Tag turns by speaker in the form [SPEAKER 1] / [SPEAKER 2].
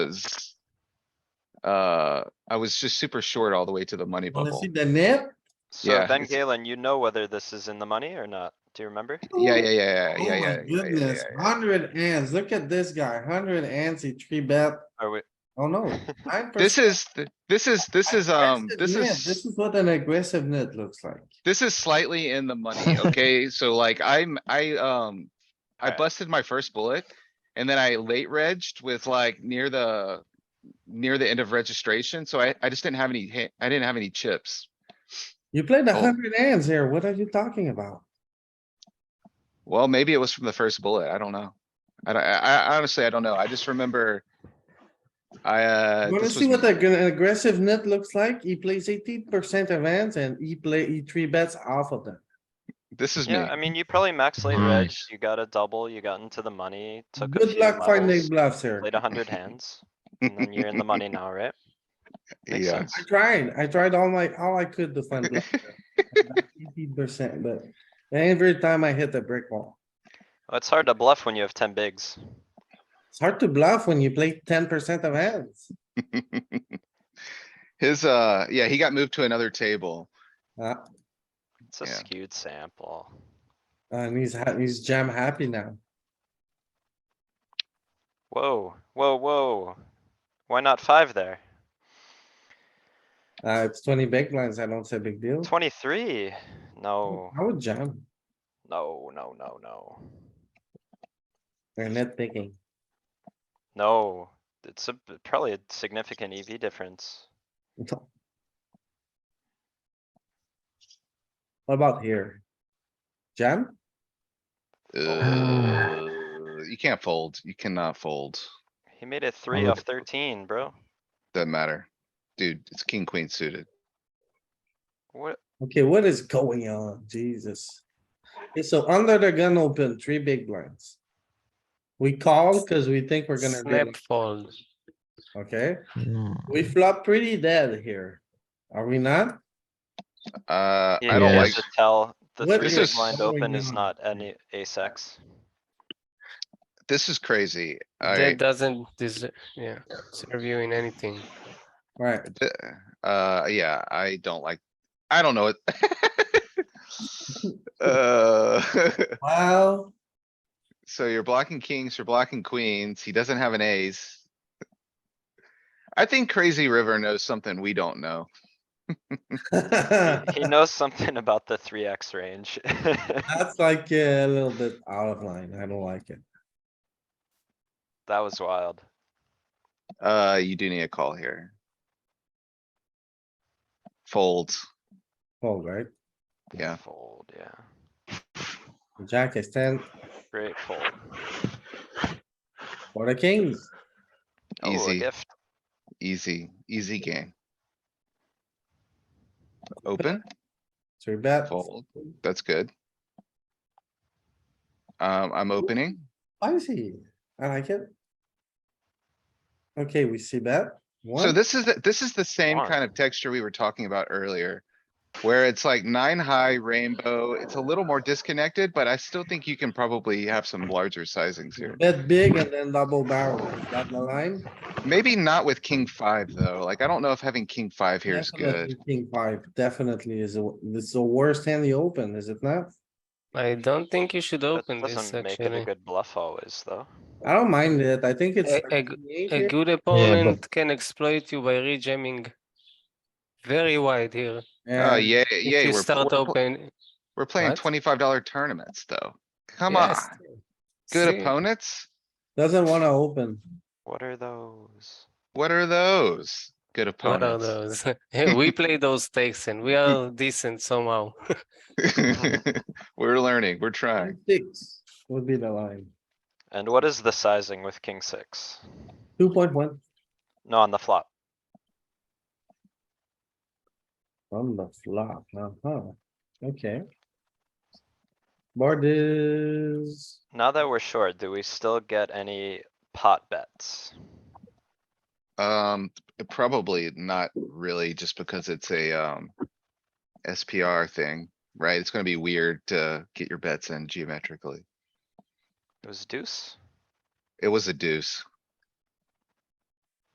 [SPEAKER 1] was. Uh, I was just super short all the way to the money
[SPEAKER 2] Wanna
[SPEAKER 1] bubble.
[SPEAKER 2] see the nip?
[SPEAKER 1] Yeah,
[SPEAKER 3] So then
[SPEAKER 1] it's-
[SPEAKER 3] Galen, you know whether this is in the money or not. Do you remember?
[SPEAKER 1] Yeah, yeah, yeah, yeah,
[SPEAKER 2] Oh
[SPEAKER 1] yeah,
[SPEAKER 2] my
[SPEAKER 1] yeah, yeah, yeah, yeah,
[SPEAKER 2] goodness, hundred hands. Look at this guy, hundred hands, he three bet.
[SPEAKER 3] Are we,
[SPEAKER 2] Oh no. 9%.
[SPEAKER 1] This is, th- this is, this is, um,
[SPEAKER 2] Aggressive
[SPEAKER 1] this
[SPEAKER 2] nit. This
[SPEAKER 1] is,
[SPEAKER 2] is what an aggressive net looks like.
[SPEAKER 1] this is slightly in the money, okay? So like I'm, I, um, I
[SPEAKER 3] Alright.
[SPEAKER 1] busted my first bullet and then I late regged with like near the, near the end of registration. So I, I just didn't have any, ha- I didn't have any chips.
[SPEAKER 2] You played a
[SPEAKER 1] Oh.
[SPEAKER 2] hundred hands here. What are you talking about?
[SPEAKER 1] Well, maybe it was from the first bullet. I don't know. I, don't- I, I honestly, I don't know. I just remember. I, uh.
[SPEAKER 2] Wanna
[SPEAKER 1] this
[SPEAKER 2] see
[SPEAKER 1] was
[SPEAKER 2] what the g- aggressive net looks like? He plays eighteen percent of hands and he play, he three bets off of them.
[SPEAKER 1] m- This is me.
[SPEAKER 3] yeah, I mean, you probably max late reg,
[SPEAKER 4] Nice.
[SPEAKER 3] you got a double, you got into the money, took a
[SPEAKER 2] Good
[SPEAKER 3] few
[SPEAKER 2] luck finding
[SPEAKER 3] levels,
[SPEAKER 2] bluffs here.
[SPEAKER 3] played a hundred hands. And then you're in the money now, right? Makes
[SPEAKER 1] Yeah.
[SPEAKER 3] sense.
[SPEAKER 2] I tried, I tried all my, all I could to find bluffs Eighteen percent, but every time I hit the brick wall.
[SPEAKER 3] Well, It's hard to bluff when you have ten bigs.
[SPEAKER 2] It's hard to bluff when you play ten percent of hands.
[SPEAKER 1] His, uh, yeah, he got moved to another table.
[SPEAKER 2] Uh,
[SPEAKER 3] It's a
[SPEAKER 1] Yeah.
[SPEAKER 3] skewed sample.
[SPEAKER 2] and he's, ha- he's jam happy now.
[SPEAKER 3] Whoa, whoa, whoa. Why not five there?
[SPEAKER 2] Uh, it's twenty big blinds. I don't say big deal.
[SPEAKER 3] Twenty-three? No,
[SPEAKER 2] I would jam.
[SPEAKER 3] no, no, no, no.
[SPEAKER 2] They're net picking.
[SPEAKER 3] No, it's a, probably a significant EV difference.
[SPEAKER 2] What about here? Jam?
[SPEAKER 3] Oh.
[SPEAKER 1] Uh, you can't fold. You cannot fold.
[SPEAKER 3] He made it three
[SPEAKER 4] look
[SPEAKER 3] off thirteen, bro.
[SPEAKER 1] Doesn't matter. Dude, it's king, queen suited.
[SPEAKER 3] What?
[SPEAKER 2] Okay, what is going on? Jesus. Okay, so under the gun open, three big blinds. We call because we think we're gonna,
[SPEAKER 4] Snap
[SPEAKER 2] rip,
[SPEAKER 4] fold.
[SPEAKER 2] okay?
[SPEAKER 4] No.
[SPEAKER 2] We flop pretty dead here. Are we not?
[SPEAKER 1] Uh,
[SPEAKER 3] Yeah,
[SPEAKER 1] I
[SPEAKER 3] you
[SPEAKER 1] don't
[SPEAKER 3] guys
[SPEAKER 1] like,
[SPEAKER 3] should tell the
[SPEAKER 2] What
[SPEAKER 3] three
[SPEAKER 1] is
[SPEAKER 3] big blind
[SPEAKER 2] going
[SPEAKER 3] open is
[SPEAKER 2] on?
[SPEAKER 3] not any ace X.
[SPEAKER 1] this is crazy.
[SPEAKER 4] That
[SPEAKER 1] I,
[SPEAKER 4] doesn't deserve, yeah, serve you in anything.
[SPEAKER 2] Right,
[SPEAKER 1] uh, yeah, I don't like, I don't know it. Uh,
[SPEAKER 2] well,
[SPEAKER 1] so you're blocking kings, you're blocking queens. He doesn't have an ace. I think Crazy River knows something we don't know.
[SPEAKER 2] that's
[SPEAKER 3] He knows something about the three X range.
[SPEAKER 2] like a little bit out of line. I don't like it.
[SPEAKER 3] That was wild.
[SPEAKER 1] Uh, you do need a call here. Fold.
[SPEAKER 2] Fold, right?
[SPEAKER 1] Yeah.
[SPEAKER 3] Fold, yeah.
[SPEAKER 2] Jack is ten
[SPEAKER 3] Great fold.
[SPEAKER 2] for the kings.
[SPEAKER 3] Oh, a
[SPEAKER 1] Easy.
[SPEAKER 3] gift.
[SPEAKER 1] Easy, easy game. Open,
[SPEAKER 2] Three bet.
[SPEAKER 1] fold, that's good. Um, I'm opening.
[SPEAKER 2] Spicy. I like it. Okay, we see that.
[SPEAKER 1] So
[SPEAKER 2] One,
[SPEAKER 1] this is, the- this is the same
[SPEAKER 3] Darn.
[SPEAKER 1] kind of texture we were talking about earlier. Where it's like nine high rainbow, it's a little more disconnected, but I still think you can probably have some larger sizings here.
[SPEAKER 2] bet big and then double barrel. Is that the line?
[SPEAKER 1] Maybe not with king five, though. Like, I don't know if having king five here is good.
[SPEAKER 2] Definitely King five definitely is, the- this is the worst hand you open, is it not?
[SPEAKER 4] I don't think you should
[SPEAKER 3] That
[SPEAKER 4] open this,
[SPEAKER 3] doesn't make it a
[SPEAKER 4] actually.
[SPEAKER 3] good bluff always, though.
[SPEAKER 2] I don't mind it. I think it's.
[SPEAKER 4] A- a g-
[SPEAKER 2] 38
[SPEAKER 4] A
[SPEAKER 2] here.
[SPEAKER 4] good opponent can exploit you by rejamming very wide here.
[SPEAKER 1] Oh,
[SPEAKER 2] And
[SPEAKER 1] yeah,
[SPEAKER 4] If
[SPEAKER 1] yeah.
[SPEAKER 4] you start open.
[SPEAKER 1] We're playing
[SPEAKER 4] What?
[SPEAKER 1] twenty-five dollar tournaments, though. Come on,
[SPEAKER 4] yes,
[SPEAKER 1] good
[SPEAKER 4] see,
[SPEAKER 1] opponents?
[SPEAKER 2] doesn't wanna open.
[SPEAKER 3] What are those?
[SPEAKER 1] What are those? Good
[SPEAKER 4] What are
[SPEAKER 1] opponents.
[SPEAKER 4] those? Hey, We play those stakes and we are decent somehow. Mm-hmm.
[SPEAKER 1] We're learning, we're trying.
[SPEAKER 2] Six would be the line.
[SPEAKER 3] And what is the sizing with king six?
[SPEAKER 2] Two point one
[SPEAKER 3] No, on the flop.
[SPEAKER 2] from the flop, uh-huh. Okay. Board is,
[SPEAKER 3] Now that we're short, do we still get any pot bets?
[SPEAKER 1] Um, probably not really, just because it's a, um. SPR thing, right? It's gonna be weird to get your bets in geometrically.
[SPEAKER 3] It was deuce?
[SPEAKER 1] It was a deuce.